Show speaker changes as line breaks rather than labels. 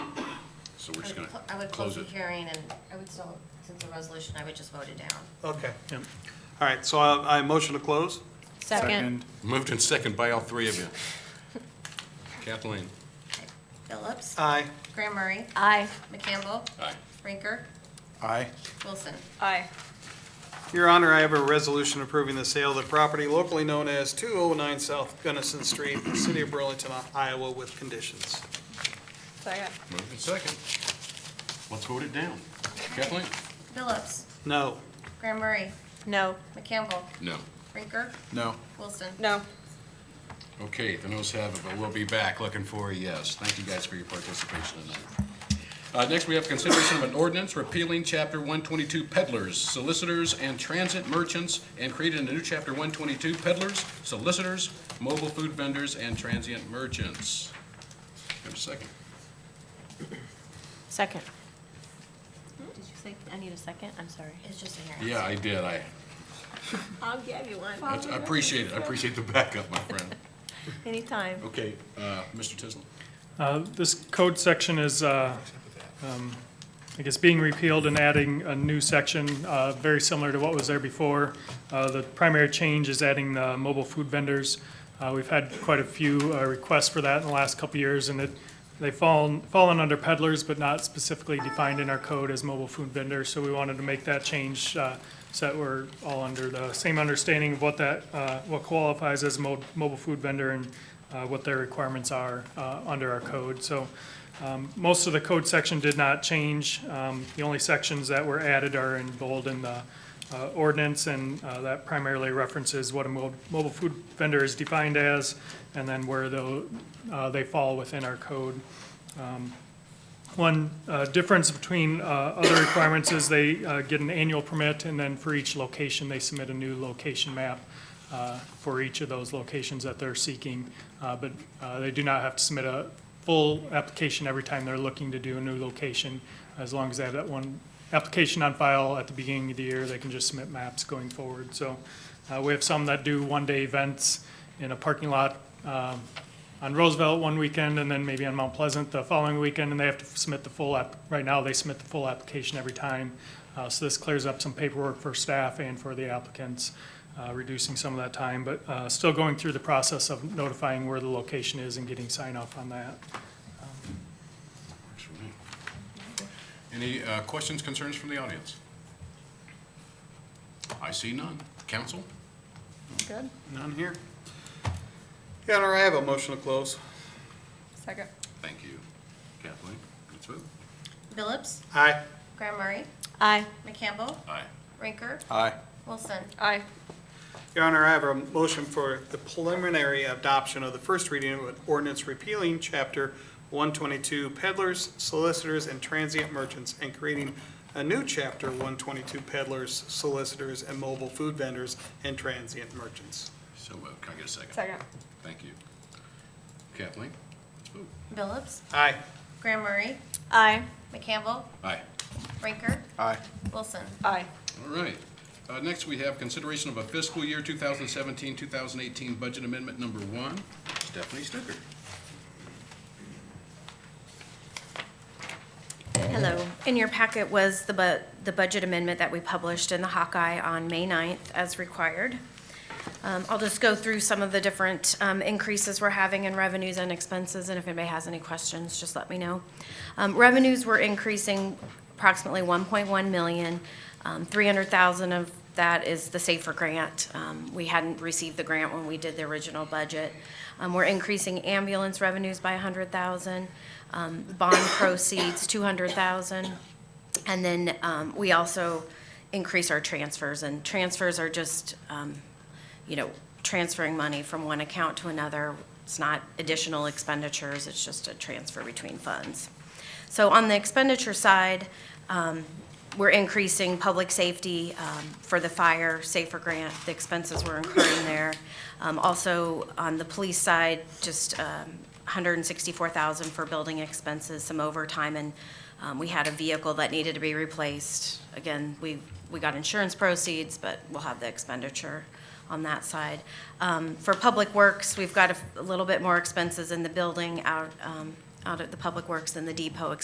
so we're just gonna
I would close
close
the
it.
hearing and I would still, since the resolution, I would just vote it down.
Okay. All right, so I, I motion to close.
Second.
Moved and second by all three of you. Kathleen?
Phillips,
Aye.
Graham Murray,
Aye.
McCampbell,
Aye.
Rinker,
Aye.
Wilson.
Aye.
Your Honor, I have a resolution approving the sale of the property locally known as 209 South Gunnison Street, the City of Burlington, Iowa, with conditions.
Second.
Moved and second. Let's vote it down. Kathleen?
Phillips,
No.
Graham Murray,
No.
McCampbell,
No.
Rinker,
No.
Wilson.
No.
Okay, the noes have it, but we'll be back looking for a yes. Thank you guys for your participation tonight. Uh, next, we have consideration of an ordinance repealing Chapter 122 peddlers, solicitors, and transit merchants, and creating a new Chapter 122 peddlers, solicitors, mobile food vendors, and transient merchants. Have a second.
Second. Did you say, I need a second? I'm sorry.
It's just a hearing.
Yeah, I did. I,
I'll give you one.
I appreciate it. I appreciate the backup, my friend.
Anytime.
Okay, uh, Mr. Tisland?
Uh, This code section is, uh, um, I guess, being repealed and adding a new section, uh, very similar to what was there before. Uh, The primary change is adding the mobile food vendors. Uh, We've had quite a few uh, requests for that in the last couple of years, and it, they've fallen, fallen under peddlers, but not specifically defined in our code as mobile food vendors. So we wanted to make that change uh, so that we're all under the same understanding of what that, uh, what qualifies as mo- mobile food vendor and uh, what their requirements are uh, under our code. So um, most of the code section did not change. Um, The only sections that were added are in bold in the uh, ordinance, and uh, that primarily references what a mo- mobile food vendor is defined as, and then where tho- uh, they fall within our code. Um, One uh, difference between uh, other requirements is they uh, get an annual permit, and then for each location, they submit a new location map uh, for each of those locations that they're seeking. Uh, But uh, they do not have to submit a full application every time they're looking to do a new location. As long as they have that one application on file at the beginning of the year, they can just submit maps going forward. So uh, we have some that do one-day events in a parking lot um, on Roosevelt one weekend, and then maybe on Mount Pleasant the following weekend, and they have to submit the full app. Right now, they submit the full application every time. Uh, So this clears up some paperwork for staff and for the applicants uh, reducing some of that time, but uh, still going through the process of notifying where the location is and getting sign off on that.
Works for me. Any uh, questions, concerns from the audience? I see none. Council?
Good.
None here.
Your Honor, I have a motion to close.
Second.
Thank you. Kathleen? Let's vote.
Phillips,
Aye.
Graham Murray,
Aye.
McCampbell,
Aye.
Rinker,
Aye.
Wilson.
Aye.
Your Honor, I have a motion for the preliminary adoption of the first reading of an ordinance repealing Chapter 122 peddlers, solicitors, and transient merchants, and creating a new Chapter 122 peddlers, solicitors, and mobile food vendors and transient merchants.
So moved. Can I get a second?
Second.
Thank you. Kathleen? Let's vote.
Phillips,
Aye.
Graham Murray,
Aye.
McCampbell,
Aye.
Rinker,
Aye.
Wilson.
Aye.
All right. Uh, Next, we have consideration of a fiscal year 2017, 2018 budget amendment number one. Stephanie Stucker.
Hello. In your packet was the bu, the budget amendment that we published in the Hawkeye on May 9th as required. Um, I'll just go through some of the different, um, increases we're having in revenues and expenses, and if anybody has any questions, just let me know. Um, revenues were increasing approximately one point one million. Um, three hundred thousand of that is the SAFER grant. Um, we hadn't received the grant when we did the original budget. Um, we're increasing ambulance revenues by hundred thousand, um, bond proceeds, two hundred thousand. And then, um, we also increase our transfers, and transfers are just, um, you know, transferring money from one account to another. It's not additional expenditures, it's just a transfer between funds. So on the expenditure side, um, we're increasing public safety um, for the fire, safer grant, the expenses we're incurring there. Um, Also, on the police side, just um, 164,000 for building expenses, some overtime, and um, we had a vehicle that needed to be replaced. Again, we, we got insurance proceeds, but we'll have the expenditure on that side. Um, For Public Works, we've got a f- a little bit more expenses in the building out, um, out at the Public Works than the depot expenses.